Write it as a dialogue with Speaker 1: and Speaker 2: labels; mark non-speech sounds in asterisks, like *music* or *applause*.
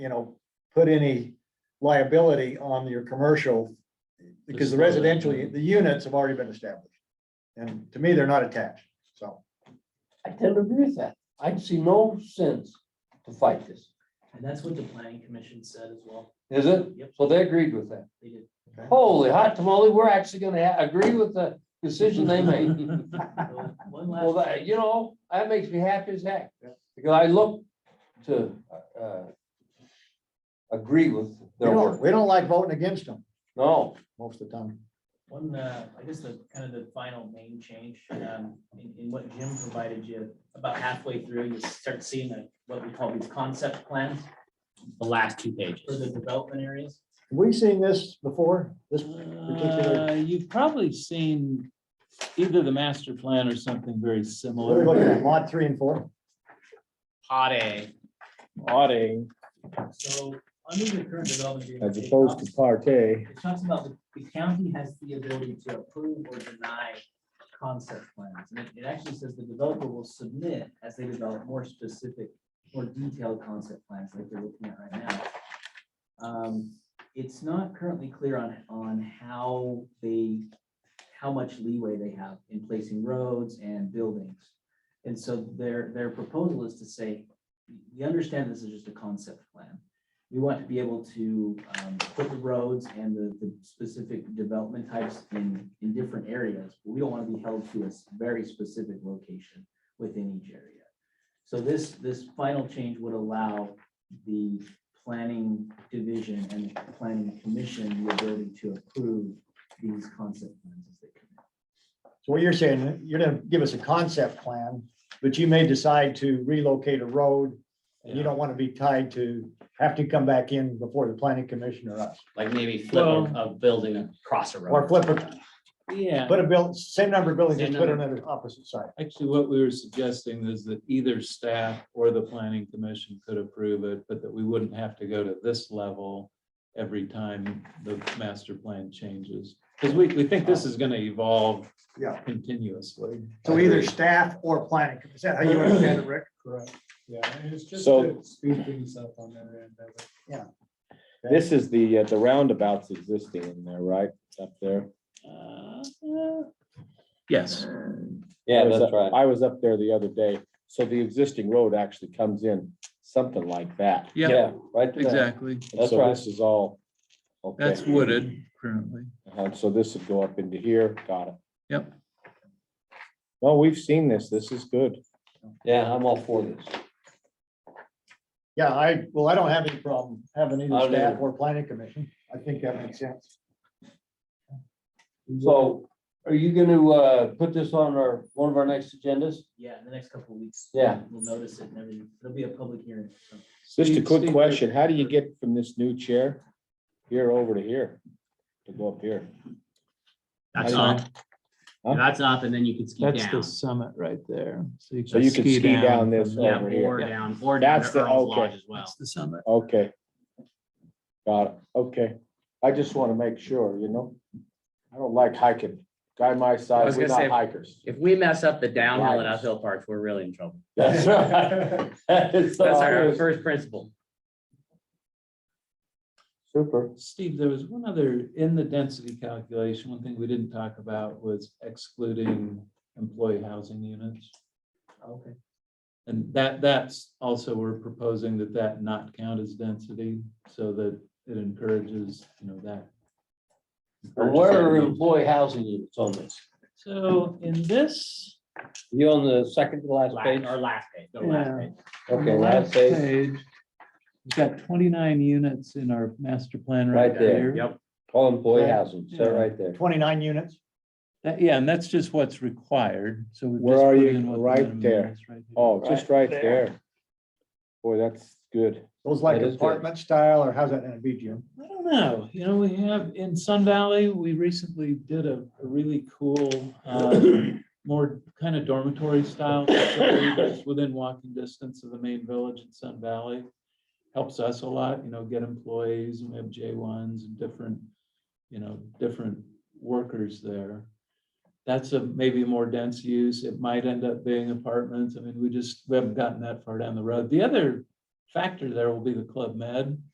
Speaker 1: you know, put any liability on your commercial. Because the residential, the units have already been established. And to me, they're not attached, so.
Speaker 2: I tend to agree with that. I see no sense to fight this.
Speaker 3: And that's what the planning commission said as well.
Speaker 2: Is it?
Speaker 3: Yep,
Speaker 2: So they agreed with that.
Speaker 3: they did.
Speaker 2: Holy hot tamale, we're actually gonna ha- agree with the decision they made.
Speaker 3: So, One
Speaker 2: *laughs* Well,
Speaker 3: last,
Speaker 2: that, you know, that makes me happy as heck, because I look to, uh, agree with
Speaker 1: We
Speaker 2: their
Speaker 1: don't,
Speaker 2: work.
Speaker 1: we don't like voting against them
Speaker 2: No,
Speaker 1: most of the time.
Speaker 3: one, uh, I guess the, kind of the final main change, um, in, in what Jim provided you, about halfway through, you start seeing the- what we call these concept plans
Speaker 4: the last two
Speaker 3: for the
Speaker 4: pages.
Speaker 3: development areas.
Speaker 1: Have we seen this before? This, particular-
Speaker 4: Uh, You've probably seen either the master plan or something very
Speaker 1: what are we looking
Speaker 4: similar.
Speaker 1: at, lot three and four?
Speaker 4: Pot A. Pot A,
Speaker 3: So, under the current development. agreement,
Speaker 4: as
Speaker 3: it
Speaker 4: opposed
Speaker 3: talks-
Speaker 4: to part A.
Speaker 3: It talks about the- the county has the ability to approve or deny concept plans. And it- it actually says the developer will submit as they develop more specific, more detailed concept plans like they're looking at right now. Um, It's not currently clear on, on how they, how much leeway they have in placing roads and buildings. And so their, their proposal is to say, we understand this is just a concept plan we want to be able to um, put the roads and the, the specific development types in, in different areas. but We don't want to be held to a s- very specific location within each area. So this, this final change would allow the planning division and the planning commission the ability to approve these concept plans as they come in.
Speaker 1: So what you're saying, you're gonna give us a concept plan, but you may decide to relocate a road. And you don't want to be tied to, have to come back in before the planning commission or us.
Speaker 5: Like maybe flip a, a building across a road.
Speaker 1: Or flip
Speaker 5: something like that.
Speaker 4: Yeah,
Speaker 1: Put a bill, same number of buildings, just
Speaker 5: Same
Speaker 1: put another opposite side.
Speaker 4: actually what we were suggesting is that either staff or the planning commission could approve it, but that we wouldn't have to go to this level every time the master plan changes. Because we, we think this is going to evolve
Speaker 1: Yeah.
Speaker 4: continuously.
Speaker 1: So either staff or planning, is that how you understand it, Rick?
Speaker 6: Correct, yeah, and it's just
Speaker 7: So-
Speaker 6: to speed things up on that end. I would-
Speaker 7: This is the, uh, the roundabout's existing in there, right? It's Up there.
Speaker 4: Uh, Yes.
Speaker 7: Yeah, that's right. I was up there the other day. So the existing road actually comes in something like that.
Speaker 4: Yeah.
Speaker 7: right.
Speaker 4: Exactly.
Speaker 7: And so this is all. okay.
Speaker 4: That's wooded currently.
Speaker 7: Uh-huh, So this would go up into here. Got it.
Speaker 4: Yep.
Speaker 7: Well, we've seen this. This is good.
Speaker 2: yeah, I'm all for this.
Speaker 1: Yeah, I, well, I don't have any problem having
Speaker 2: I
Speaker 1: either
Speaker 2: don't
Speaker 1: staff
Speaker 2: either.
Speaker 1: or planning commission. I think that makes sense.
Speaker 2: So are you gonna, uh, put this on our, one of our next agendas?
Speaker 3: Yeah, in the next couple of weeks.
Speaker 2: Yeah.
Speaker 3: We'll notice it and everything. It'll be a public hearing. so.
Speaker 7: Just a
Speaker 4: Steve-
Speaker 7: quick
Speaker 4: Steve-
Speaker 7: question. How do you get from this new chair here over to here? To go up here?
Speaker 4: I
Speaker 5: That's
Speaker 4: don't
Speaker 5: up.
Speaker 7: Huh?
Speaker 5: That's up and then you can ski
Speaker 4: That's the
Speaker 5: down.
Speaker 4: summit right there.
Speaker 7: So you can ski down this
Speaker 4: from
Speaker 5: Yeah,
Speaker 7: over here.
Speaker 5: or down, or down to
Speaker 7: That's the-
Speaker 5: Earl's
Speaker 7: okay.
Speaker 5: Lodge as well.
Speaker 4: That's the summit.
Speaker 7: Okay. Got it, okay. I just want to make sure, you know? I don't like hiking. Guy my
Speaker 5: I
Speaker 7: size,
Speaker 5: was
Speaker 7: we're
Speaker 5: gonna
Speaker 7: not hikers. *laughs*
Speaker 5: If we mess up the downhill and
Speaker 7: Right.
Speaker 5: uphill parts, we're really in trouble.
Speaker 7: That's right. That is
Speaker 5: That's our
Speaker 7: always-
Speaker 5: first principle.
Speaker 7: Super.
Speaker 4: Steve, there was one other, in the density calculation, one thing we didn't talk about was excluding employee housing units.
Speaker 3: Okay.
Speaker 4: And that, that's also, we're proposing that that not count as density so that it encourages, you know, that.
Speaker 2: And where are employee housing units on this?
Speaker 4: So in this.
Speaker 2: You on the second to last page?
Speaker 5: Last, our last page, the last
Speaker 4: Yeah.
Speaker 5: page.
Speaker 2: Okay, last page.
Speaker 4: We've got twenty-nine units in our master plan
Speaker 2: Right
Speaker 4: right
Speaker 2: there.
Speaker 4: there.
Speaker 5: Yep.
Speaker 2: All employee housing,
Speaker 4: Yeah.
Speaker 2: so right there.
Speaker 1: Twenty-nine units.
Speaker 4: That- Yeah, and that's just what's required, so. we've
Speaker 7: Where
Speaker 4: just
Speaker 7: are
Speaker 4: put
Speaker 7: you?
Speaker 4: in what the
Speaker 7: Right
Speaker 4: minimum
Speaker 7: there.
Speaker 4: is right here.
Speaker 7: Oh, just right there. Boy, that's good.
Speaker 1: Those like
Speaker 2: That is good.
Speaker 1: apartment style or how's that gonna be, Jim?
Speaker 4: I don't know, you know, we have, in Sun Valley, we recently did a a really cool, uh, more kind of dormitory style. facility that's Within walking distance of the main village in Sun Valley. Helps us a lot, you know, get employees, and we have J ones and different, you know, different workers there. That's a maybe more dense use, it might end up being apartments, I mean, we just, we haven't gotten that far down the road. The other factor there will be the Club Med.